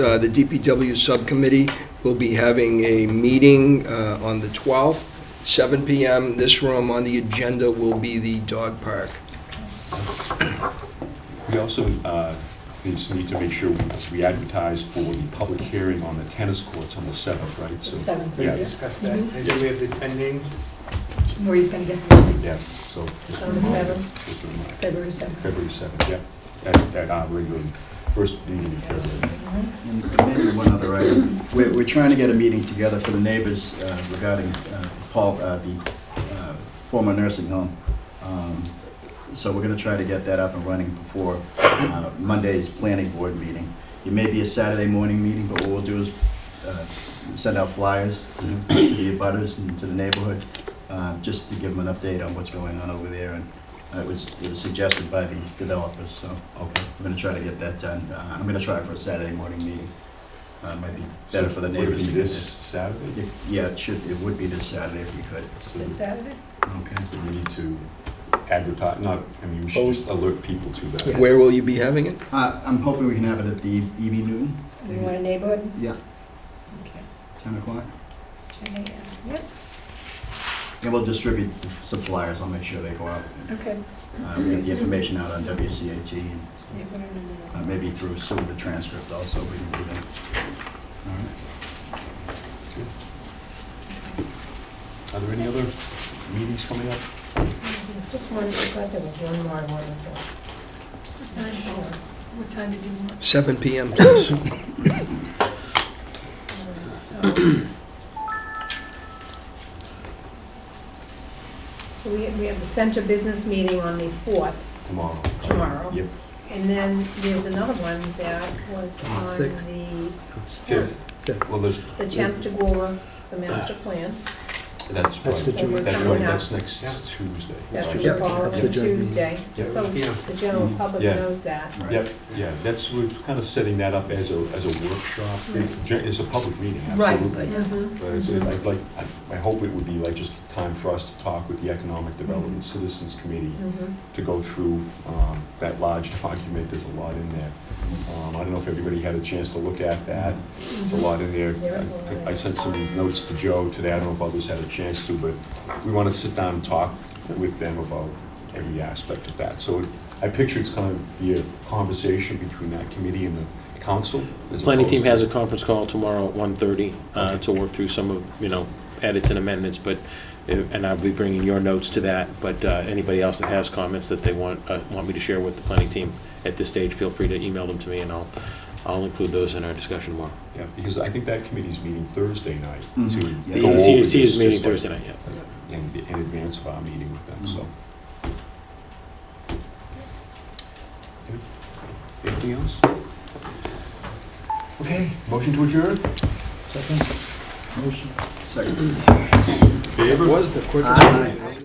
Uh, The DPW Subcommittee will be having a meeting uh, on the 12th, 7 PM. This room on the agenda will be the dog park. We also uh, just need to make sure we advertise for the public hearing on the tennis courts on the 7th, right? So- Seventh, Yeah, right? discuss that. I think we have the 10 names. Maureen's gonna get them, Yeah, so. just a On the reminder, 7th? Just a reminder. February seventh. February 7th, yeah, at, at our regular, first meeting in February. And maybe one other item. We're, we're trying to get a meeting together for the neighbors uh, regarding uh, Paul, uh, the uh, former nursing home. Um, So we're gonna try to get that up and running before uh, Monday's planning board meeting. It may be a Saturday morning meeting, but what we'll do is uh, send out flyers to the abutters and to the neighborhood, uh, just to give them an update on what's going on over there. And uh, it was, it was suggested by the developers, so. Okay. I'm gonna try to get that done. Uh, I'm gonna try for a Saturday morning meeting. Uh, might be So better for the would it neighbors. be to get this Saturday? that. If- Yeah, it should, it would be this Saturday if we could. This So Saturday? Okay. so we need to advertise, not, I mean, we should just alert people to that. Where will you be having it? Uh, I'm hoping we can have it at the E EB Newton. You want a neighborhood? Yeah, Okay. ten o'clock. Ten a.m. Yep, And we'll distribute some flyers. I'll make sure they go out. And, okay. Uh, we'll get the information out on WCAT and Neighborhood and then- uh, maybe through some of the transcript also we can do that. All right. Are there any other meetings coming up? It's just one, I thought there was one more I wanted to. What time, Sure. what time did you want? 7 PM, please. So, So we, we have the center business meeting on the fourth, Tomorrow. Tomorrow. Yep, and then there's another one that was on Sixth. the, fifth. Well, there's, the Chancellor, the master plan. that's right. That's the And we're That's coming right, up. that's next Tuesday. That's Right. the Yep, following that's the joint meeting. Tuesday, Yep. so Yeah. the general public Yeah. knows that. All right. Yep, yeah, that's, we're kind of setting that up as a, as a workshop. It's gen- It's a public meeting, Right. absolutely. Mhm. But it's I'd like, I I hope it would be like just time for us to talk with the Economic Development Citizens Committee Mhm. to go through um, that large document, there's a lot in there. Um, I don't know if everybody had a chance to look at that, it's a lot in there. There is a I think lot. I sent some notes to Joe today, I don't know if others had a chance to, but we want to sit down and talk with them about every aspect of that. So I picture it's going to be a conversation between that committee and the council. as Planning team opposed has to- a conference call tomorrow at 1:30 uh, Okay. to work through some of, you know, edits and amendments, but, uh, and I'll be bringing your notes to that, but uh, anybody else that has comments that they want, uh, want me to share with the planning team at this stage, feel free to email them to me, and I'll, I'll include those in our discussion tomorrow. Yeah, because I think that committee's meeting Thursday night to Mhm. go Yeah. The over CDC CDC this, is meeting just like- Thursday night, yeah. in, in advance of our meeting with them, so. Anything else? Okay, motion to adjourn? Motion. Second. Favor? Was the quickest. Aye.